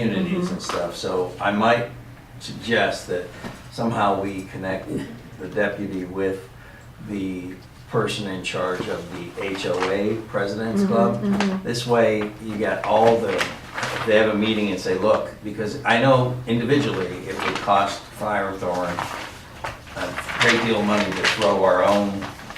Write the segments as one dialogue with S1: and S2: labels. S1: communities and stuff. So I might suggest that somehow we connect the deputy with the person in charge of the HOA President's Club. This way, you got all the, if they have a meeting and say, look, because I know individually, it would cost Firethorn a great deal of money to throw our own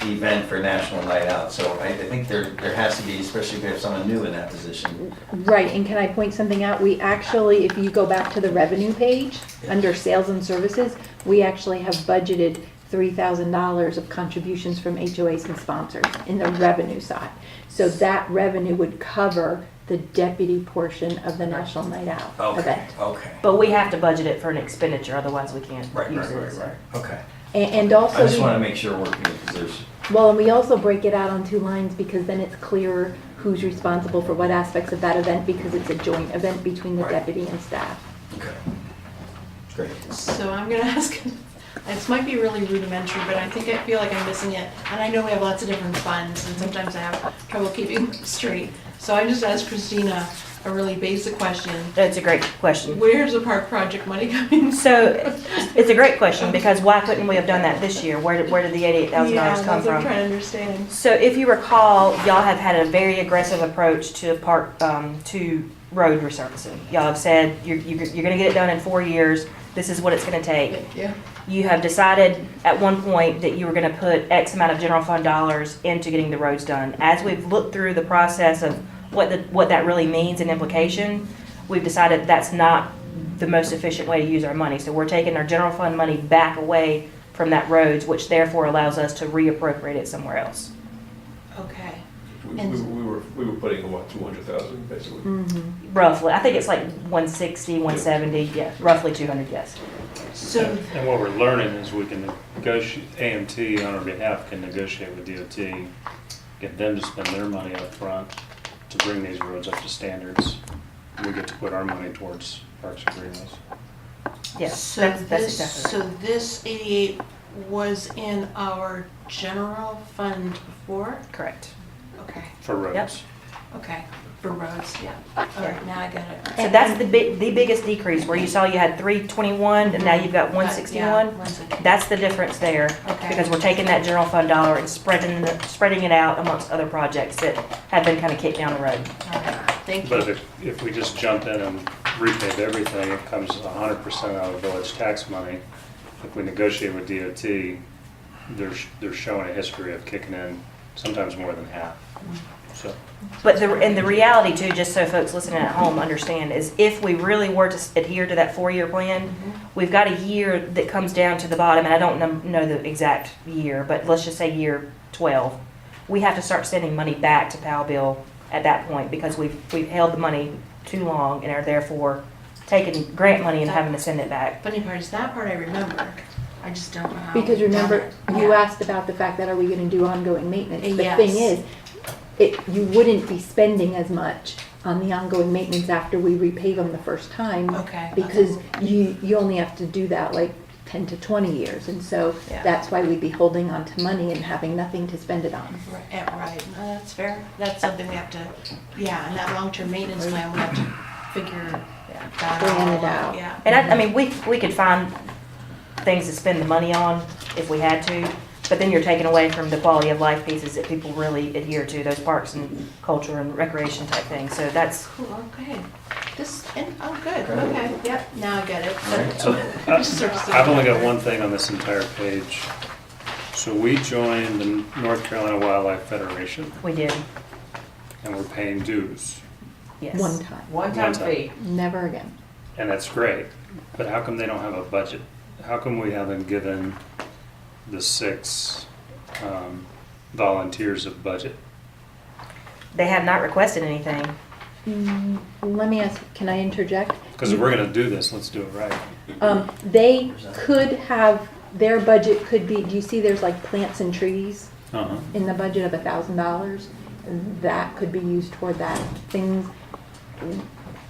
S1: event for National Night Out. So I, I think there, there has to be, especially if we have someone new in that position.
S2: Right, and can I point something out? We actually, if you go back to the revenue page, under sales and services, we actually have budgeted three thousand dollars of contributions from HOAs and sponsors in the revenue side. So that revenue would cover the deputy portion of the National Night Out
S1: Oh, Okay,
S2: event.
S1: okay.
S3: But we have to budget it for an expenditure, otherwise we can't
S1: Right,
S3: use
S1: right,
S3: it.
S1: right, right, okay.
S2: A- And also.
S1: I just
S2: we-
S1: want to make sure we're, because there's,
S2: Well, and we also break it out on two lines because then it's clearer who's responsible for what aspects of that event because it's a joint event between the
S1: Right.
S2: deputy and staff.
S1: okay. Great.
S4: So I'm gonna ask, this might be really rudimentary, but I think I feel like I'm missing it. And I know we have lots of different funds and sometimes I have trouble keeping them straight. So I just asked Christina a really basic question.
S3: That's a great question.
S4: Where's the park project money coming?
S3: So, it's a great question, because why couldn't we have done that this year? Where did, where did the eighty-eight thousand dollars come
S4: Yeah, that's what I'm
S3: from?
S4: trying to understand.
S3: So if you recall, y'all have had a very aggressive approach to park, um, to road resurfacing. Y'all have said, you're, you're you're gonna get it done in four years, this is what it's gonna take.
S4: Yeah.
S3: you have decided at one point that you were going to put X amount of general fund dollars into getting the roads done. As we've looked through the process of what the, what that really means and implication, we've decided that's not the most efficient way to use our money. So we're taking our general fund money back away from that roads, which therefore allows us to reappropriate it somewhere else.
S4: Okay.
S5: We, we
S4: And-
S5: we were, we were putting, what, two hundred thousand, basically?
S3: Roughly, I think it's like 160, 170, yeah, roughly 200, yes.
S4: So,
S6: And what we're learning is we can negotiate, AMT on our behalf can negotiate with DOT, get them to spend their money up front to bring these roads up to standards. We get to put our money towards parks and greenways.
S3: Yes,
S4: so
S3: that's, that's
S4: this,
S3: exactly
S4: so
S3: right.
S4: this 88 was in our general fund before?
S3: Correct.
S4: Okay,
S6: For roads.
S4: okay, for roads.
S3: Yeah.
S4: All right, now I got it.
S3: So that's the big, the biggest decrease, where you saw you had three twenty-one, and now you've got one
S4: Uh, Yeah,
S3: sixty-one.
S4: 161.
S3: That's the difference there,
S4: Okay.
S3: because we're taking that general fund dollar and spreading, the- spreading it out amongst other projects that have been kind of kicked down the road.
S4: All right, Thank
S6: But
S4: you.
S6: if, if we just jump in and repave everything, it comes hundred percent out of village tax money. If we negotiate with DOT, they're, sh- they're showing a history of kicking in sometimes more than half. So,
S3: But the, and the reality too, just so folks listening at home understand, is if we really were to adhere to that four-year plan, we've got a year that comes down to the bottom, and I don't num- know the exact year, but let's just say year twelve. We have to start sending money back to Powell Bill at that point, because we've, we've held the money too long and are therefore taking grant money and having to send it back.
S4: Funny part is that part I remember. I just don't know how.
S2: Because
S4: we've Um, done
S2: remember,
S4: it.
S2: you
S4: Yeah.
S2: asked about the fact that are we gonna do ongoing maintenance? The
S4: Yes.
S2: thing is, it, you wouldn't be spending as much on the ongoing maintenance after we repave them the first time.
S4: Okay.
S2: Because you, you only have to do that like ten to twenty years, and so
S3: Yeah.
S2: that's why we'd be holding on to money and having nothing to spend it on.
S4: Right, yeah, right. No, that's fair. That's something we have to, yeah, and that long-term maintenance plan, we have to figure that
S2: Plan it out.
S4: all out, yeah.
S3: And I, I mean, we, we could find things to spend the money on if we had to, but then you're taking away from the quality of life pieces that people really adhere to, those parks and culture and recreation type things, so that's,
S4: Cool, okay. This, and, oh, good,
S1: Okay.
S4: okay, yep, now I get it.
S1: Alright,
S6: so
S4: I'm just sort of still-
S6: I've only got one thing on this entire page. So we joined the North Carolina Wildlife Federation
S3: we did,
S6: and we're paying dues.
S3: yes.
S2: One time,
S6: One-time fee.
S2: never again.
S6: And that's great, but how come they don't have a budget? How come we haven't given the six um, volunteers a budget?
S3: They have not requested anything.
S2: Mm, Let me ask, can I interject?
S6: Because if we're gonna do this, let's do it right.
S2: Um, they could have, their budget could be, do you see there's like plants and trees
S6: Uh-huh.
S2: in the budget of a thousand dollars? That could be used toward that, things,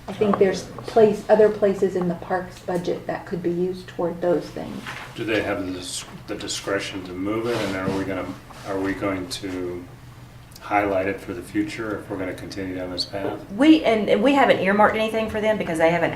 S2: I think there's place, other places in the parks budget that could be used toward those things.
S6: Do they have the dis- the discretion to move it, and are we gonna, are we going to highlighted for the future if we're gonna continue down this path?
S3: We, and and we haven't earmarked anything for them because they haven't